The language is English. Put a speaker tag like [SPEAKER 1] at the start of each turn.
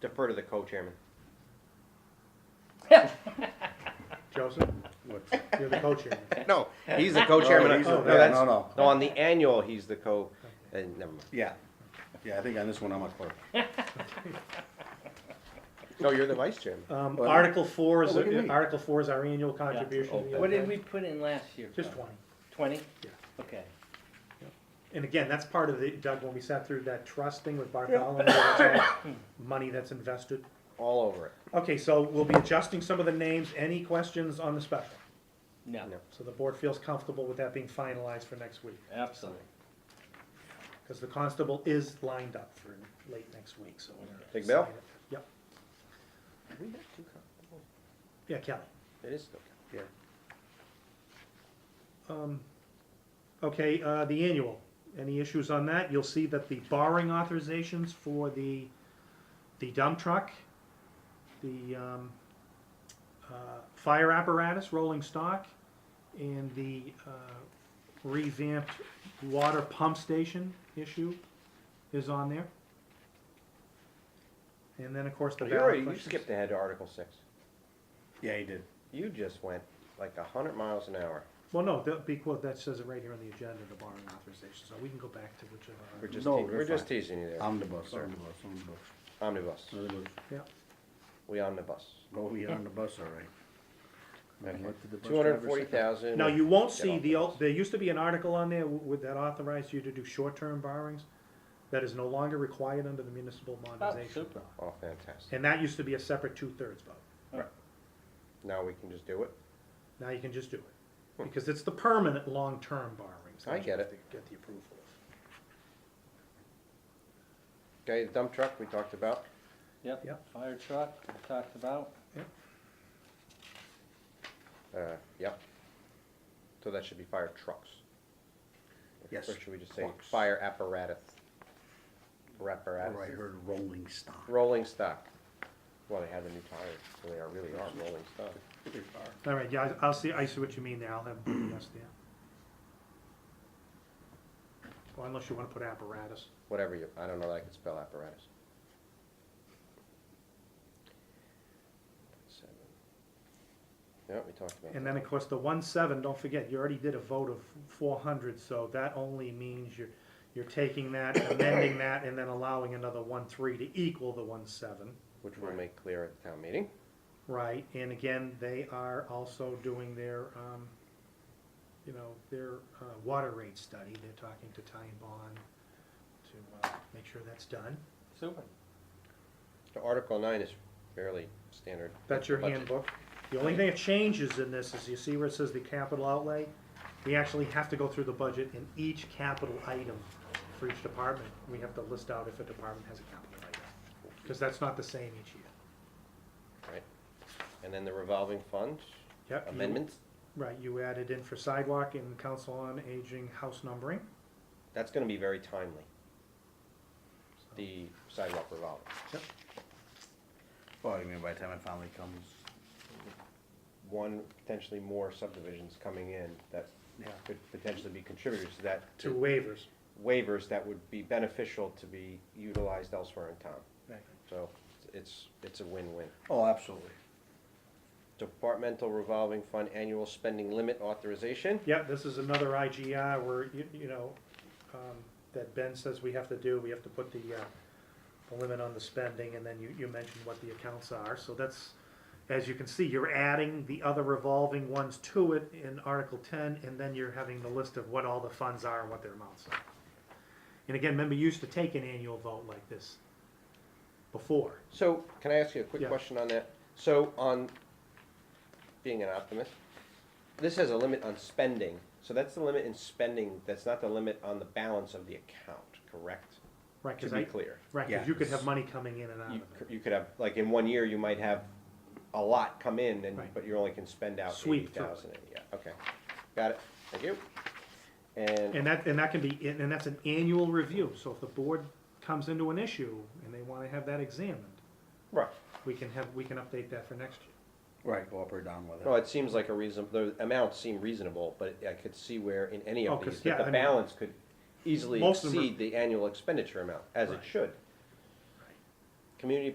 [SPEAKER 1] defer to the co-chairman.
[SPEAKER 2] Joseph, what, you're the co-chairman.
[SPEAKER 1] No, he's the
[SPEAKER 3] Oh,
[SPEAKER 1] co-chairman.
[SPEAKER 2] Oh, he's
[SPEAKER 1] of-
[SPEAKER 2] a-
[SPEAKER 1] No,
[SPEAKER 2] yeah,
[SPEAKER 1] that's,
[SPEAKER 3] no, no.
[SPEAKER 1] no, on the annual, he's the co, uh, never mind.
[SPEAKER 3] Yeah, yeah, I think on this one I'm a clerk.
[SPEAKER 1] No, you're the vice chairman.
[SPEAKER 2] Um,
[SPEAKER 3] Well,
[SPEAKER 2] Article four is,
[SPEAKER 3] oh, look at me.
[SPEAKER 2] Article four is our annual contribution.
[SPEAKER 4] What did we put in last year?
[SPEAKER 2] Just
[SPEAKER 4] Bob?
[SPEAKER 2] twenty.
[SPEAKER 4] Twenty?
[SPEAKER 2] Yeah.
[SPEAKER 4] Okay.
[SPEAKER 2] And again, that's part of the, Doug, when we sat through that trust thing with Bartholomew, that's all money that's invested.
[SPEAKER 1] All over it.
[SPEAKER 2] Okay, so we'll be adjusting some of the names. Any questions on the special?
[SPEAKER 4] No,
[SPEAKER 1] No.
[SPEAKER 2] So the board feels comfortable with that being finalized for next week,
[SPEAKER 4] absolutely.
[SPEAKER 2] because the constable is lined up for late next week, so. we're gonna
[SPEAKER 1] Big Bill?
[SPEAKER 2] sign it. Yep,
[SPEAKER 1] We have two co-
[SPEAKER 2] yeah, Kelly.
[SPEAKER 1] It is still.
[SPEAKER 3] Yeah.
[SPEAKER 2] Um, Okay, uh, the annual, any issues on that? You'll see that the borrowing authorizations for the, the dump truck, the um, uh, fire apparatus, rolling stock, and the uh, revamped water pump station issue is on there. And then, of course, the
[SPEAKER 1] You already,
[SPEAKER 2] ballot
[SPEAKER 1] Oh, you
[SPEAKER 2] questions.
[SPEAKER 1] skipped ahead to Article six.
[SPEAKER 3] Yeah, he did.
[SPEAKER 1] You just went like a hundred miles an hour.
[SPEAKER 2] Well, no, that, because that says it right here on the agenda, the borrowing authorization, so we can go back to whichever.
[SPEAKER 1] We're just, te-
[SPEAKER 3] No, we're
[SPEAKER 1] we're just
[SPEAKER 3] fine.
[SPEAKER 1] teasing you there.
[SPEAKER 2] Um,
[SPEAKER 3] Omnibus, omnibus, omnibus.
[SPEAKER 1] Omnibus.
[SPEAKER 2] uh,
[SPEAKER 3] Omnibus.
[SPEAKER 1] We omnibus.
[SPEAKER 3] Go we on the bus, all right. And what did the bus
[SPEAKER 1] Two hundred
[SPEAKER 3] driver
[SPEAKER 1] and forty
[SPEAKER 3] say?
[SPEAKER 1] thousand.
[SPEAKER 2] Now, you won't
[SPEAKER 1] Get
[SPEAKER 2] see
[SPEAKER 1] off
[SPEAKER 2] the,
[SPEAKER 1] the
[SPEAKER 2] old-
[SPEAKER 1] list.
[SPEAKER 2] there used to be an article on there with, that authorized you to do short-term borrowings. That is no longer required under the municipal
[SPEAKER 4] Oh,
[SPEAKER 2] modernization.
[SPEAKER 4] super.
[SPEAKER 1] Oh, fantastic.
[SPEAKER 2] And that used to be a separate two-thirds vote.
[SPEAKER 1] Now we can just do it.
[SPEAKER 2] Now you can just do it. Because it's the permanent long-term borrowings.
[SPEAKER 1] Hmm. I get it.
[SPEAKER 2] that you have to Get the approval of.
[SPEAKER 1] Okay, the dump truck we talked about.
[SPEAKER 2] Yep.
[SPEAKER 4] Fire truck, we talked about.
[SPEAKER 1] Uh, yep. So that should be fire trucks.
[SPEAKER 3] Yes,
[SPEAKER 1] Or should we just say
[SPEAKER 3] trucks.
[SPEAKER 1] fire apparatus?
[SPEAKER 3] Or "Oh, I
[SPEAKER 1] Apparatus.
[SPEAKER 3] heard rolling stock.
[SPEAKER 1] Rolling stock. Well, they have a new tire, so they are, really are rolling stock.
[SPEAKER 2] All right, yeah, I- I'll see, I see what you mean there, I'll have, yes, there. Well, unless you wanna put apparatus.
[SPEAKER 1] Whatever you, I don't know that I can spell apparatus. Seven. Yeah, we talked about
[SPEAKER 2] And
[SPEAKER 1] that.
[SPEAKER 2] then, of course, the one seven, don't forget, you already did a vote of four hundred, so that only means you're, you're taking that, amending that, and then allowing another one three to equal the one seven,
[SPEAKER 1] Which we'll make clear at the town meeting.
[SPEAKER 2] right? And again, they are also doing their, um, you know, their, uh, water rate study, they're talking to Ty and Bond to, uh, make sure that's done.
[SPEAKER 4] Super.
[SPEAKER 1] So Article nine is fairly standard.
[SPEAKER 2] That's your
[SPEAKER 1] Budget.
[SPEAKER 2] handbook. The only thing that changes in this is you see where it says the capital outlay? We actually have to go through the budget in each capital item for each department. We have to list out if a department has a capital item, because that's not the same each year.
[SPEAKER 1] Right. And then the revolving fund
[SPEAKER 2] Yep, you-
[SPEAKER 1] amendments,
[SPEAKER 2] Right, you added in for sidewalk and council on aging house numbering.
[SPEAKER 1] that's gonna be very timely,
[SPEAKER 2] So-
[SPEAKER 1] the sidewalk revolving.
[SPEAKER 3] Well, I Oh, mean, by the time it finally comes,
[SPEAKER 1] One, potentially more subdivisions coming in that
[SPEAKER 2] Yeah.
[SPEAKER 1] could potentially be contributors to that.
[SPEAKER 2] Two waivers.
[SPEAKER 1] Waivers that would be beneficial to be utilized elsewhere in town.
[SPEAKER 2] Right.
[SPEAKER 1] So it's, it's a win-win.
[SPEAKER 3] oh, absolutely.
[SPEAKER 1] Departmental revolving fund annual spending limit authorization.
[SPEAKER 2] Yep, this is another IGI where, you, you know, um, that Ben says we have to do, we have to put the, uh, the limit on the spending, and then you, you mentioned what the accounts are, so that's, as you can see, you're adding the other revolving ones to it in Article ten, and then you're having the list of what all the funds are and what their amounts are. And again, remember, you used to take an annual vote like this before.
[SPEAKER 1] So, can I ask you a quick
[SPEAKER 2] Yeah.
[SPEAKER 1] question on that? So, on being an optimist, this has a limit on spending, so that's the limit in spending, that's not the limit on the balance of the account, correct?
[SPEAKER 2] Right,
[SPEAKER 1] To
[SPEAKER 2] cause
[SPEAKER 1] be
[SPEAKER 2] I,
[SPEAKER 1] clear,
[SPEAKER 2] right, 'cause
[SPEAKER 3] Yeah.
[SPEAKER 2] you could have money coming in and out of
[SPEAKER 1] you,
[SPEAKER 2] it.
[SPEAKER 1] c- you could have, like, in one year, you might have a lot come in, and,
[SPEAKER 2] Right.
[SPEAKER 1] but you only can spend out eighty
[SPEAKER 2] Sweep through it.
[SPEAKER 1] thousand, yeah, okay, got it, thank you. And,
[SPEAKER 2] And that, and that can be, and that's an annual review, so if the board comes into an issue and they wanna have that examined,
[SPEAKER 1] right,
[SPEAKER 2] we can have, we can update that for next year.
[SPEAKER 3] Right, go up or down with
[SPEAKER 1] no,
[SPEAKER 3] it.
[SPEAKER 1] it seems like a reason, the amounts seem reasonable, but I could see where in any
[SPEAKER 2] Oh,
[SPEAKER 1] of
[SPEAKER 2] 'cause,
[SPEAKER 1] these,
[SPEAKER 2] yeah,
[SPEAKER 1] that
[SPEAKER 2] I
[SPEAKER 1] the
[SPEAKER 2] mean-
[SPEAKER 1] balance could easily
[SPEAKER 2] Most of them are-
[SPEAKER 1] exceed the annual expenditure amount, as it
[SPEAKER 2] Right.
[SPEAKER 1] should. Community